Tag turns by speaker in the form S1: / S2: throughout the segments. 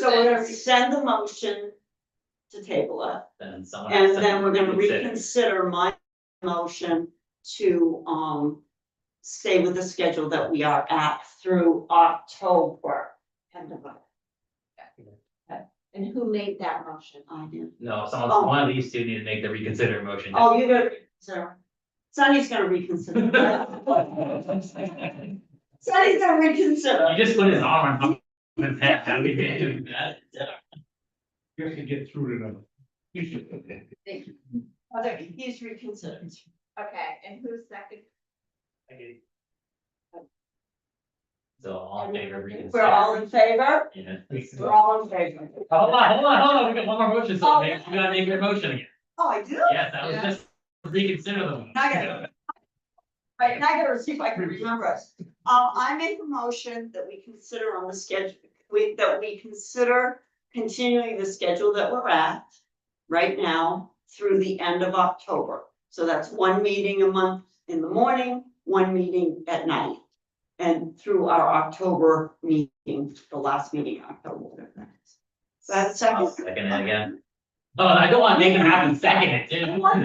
S1: So we're gonna
S2: six.
S1: send the motion to table it,
S3: then someone. has
S1: and
S3: to
S1: then we're gonna
S3: reconsider.
S1: reconsider my motion to, um, stay with the schedule that we are at through October. End of it,
S2: And who made that motion?
S1: I do.
S3: No, someone,
S1: Oh.
S3: one of these two need to make the reconsider motion.
S1: Oh, you're gonna, reconsider. Sunny's gonna reconsider.
S3: You
S1: Sunny's gonna reconsider.
S3: just put his arm on. his head, how we been doing that?
S4: You have to get through to them. You should-
S1: Okay, he's reconsidered.
S2: Okay, and who seconded?
S3: So all in favor of reconsider.
S1: We're all in favor?
S3: Yeah.
S1: We're all Oh. in favor.
S3: Hold on, hold on, hold on, we got one more motion, so we gotta make your motion again.
S1: Oh, I do?
S3: Yes, that was
S2: Yeah.
S3: just reconsider the one.
S1: I got Right, and I gotta see if I can remember us. Um, I make a motion that we consider on the schedule, we, that we consider continuing the schedule that we're at right now through the end of October. So that's one meeting a month in the morning, one meeting at night. And through our October meeting, the last meeting in October. whatever that is. So that's
S3: I'll
S1: second.
S3: Second it again. Oh, I don't wanna make him happen second it, dude.
S1: I want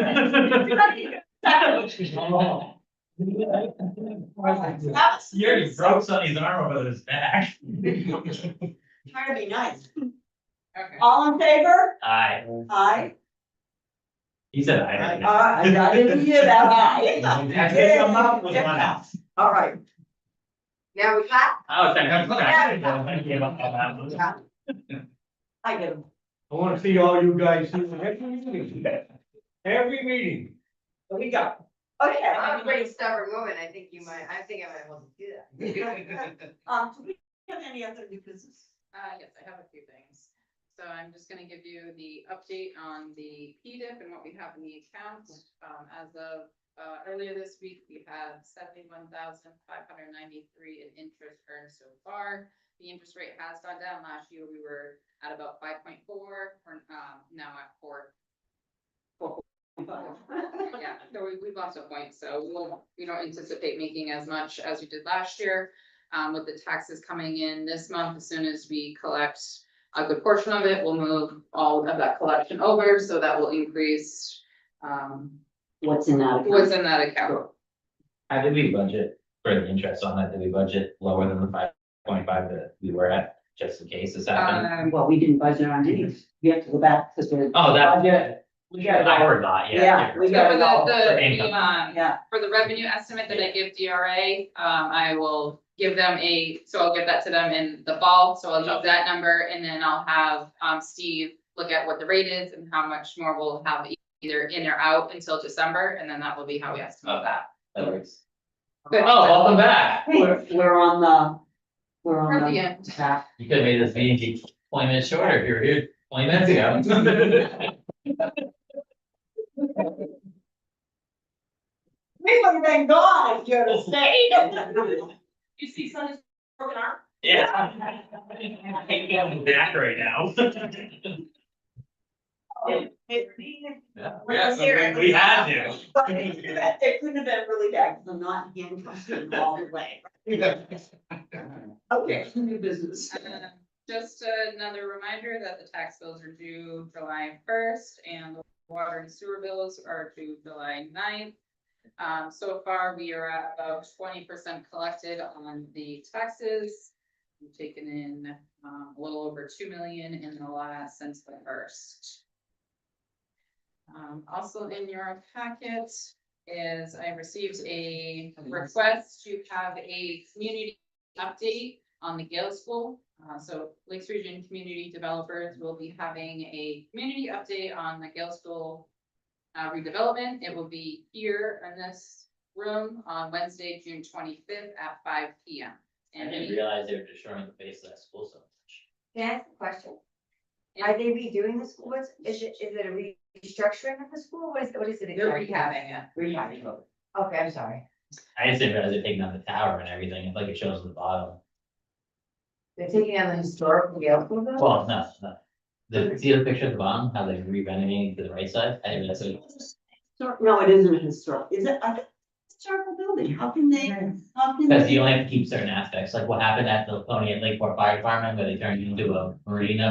S1: That was-
S3: You already broke Sonny's arm over his back.
S1: Trying to be nice.
S2: Okay.
S1: All in favor?
S3: Aye,
S1: Aye.
S3: he said aye.
S1: Uh, I didn't hear that, aye.
S4: I think your mouth was on it.
S1: All right.
S2: Now we got,
S3: I was trying to. I gave up on that one.
S1: I get them.
S4: I wanna see all you guys in every meeting. Every meeting.
S1: What we got? Okay.
S2: I'm a pretty stubborn woman, I think you might, I think I might want to do that.
S1: Um, do we have any other new business?
S5: Uh, yes, I have a few things. So I'm just gonna give you the update on the PDIP and what we have in the account. Um, as of, uh, earlier this week, we had seventy-one thousand five hundred ninety-three in interest earned so far. The interest rate has gone down. Last year, we were at about five point four, or, um, now at four. Yeah, so we, we've lost a point, so we'll, we don't anticipate making as much as we did last year. Um, with the taxes coming in this month, as soon as we collect a good portion of it, we'll move all of that collection over, so that will increase. Um,
S1: What's in that?
S5: what's in that account,
S3: How did we budget for the interest on that? Did we budget lower than the five point five that we were at, just in case this happened?
S5: um,
S1: Well, we didn't budget on any, we have to go back because we're.
S3: Oh, that,
S1: Budget. We got it all.
S3: our thought, yeah.
S1: Yeah, we
S5: so
S1: got
S5: for
S1: it all.
S5: the,
S3: For
S5: the,
S3: income.
S5: um,
S1: Yeah,
S5: for the revenue estimate that I give DRA, um, I will give them a, so I'll give that to them in the fall, so I'll use that number, and then I'll have, um, Steve look at what the rate is and how much more we'll have e- either in or out until December, and then that will be how we estimate that.
S3: That works. Oh, welcome back.
S1: we're, we're on the, we're
S5: We're at
S1: on
S5: the
S1: the.
S5: end.
S1: back.
S3: You could have made this meeting keep twenty minutes shorter if you were here twenty minutes ago.
S1: We would have been gone if you had stayed.
S5: You see, Sonny,
S1: Broken arm?
S3: Yeah. I think I'm back right now.
S1: Oh,
S3: Yeah, we had to. we had to.
S1: But it could've been- it couldn't have been really bad, because I'm not handcuffed all the way. Okay, new business.
S5: Uh, Just another reminder that the tax bills are due July first and the water and sewer bills are due July 9th. Um, so far, we are at about twenty percent collected on the taxes. We've taken in, um, a little over two million in the last, since the first. Um, also in your packet is I received a request to have a community update on the Gale School. Uh, so Lakes Region Community Developers will be having a community update on the Gale School uh, redevelopment. It will be here in this room on Wednesday, June twenty-fifth at five P M.
S3: I didn't realize they were destroying the face of that school so much.
S2: Can I ask a question? Are they redoing the school? What's- Is it, is it a restructuring of the school? What is, what is it?
S5: They're
S2: exactly?
S5: rehabbing it.
S2: Rehabbing. Okay, I'm sorry.
S3: I just didn't realize they're taking out the tower and everything, it's like it shows at the bottom.
S2: They're taking on the historical Yale school though?
S3: Well, no, no. The, see the picture at the bottom, how they re-renovating to the right side? I didn't realize it.
S1: Histor- No, it isn't a historic, is it, I think it's a historical building, how can they, how can
S3: Because
S1: they?
S3: you only have to keep certain aspects, like what happened at the Pony at Lakeport Fire Department, where they turned into a marina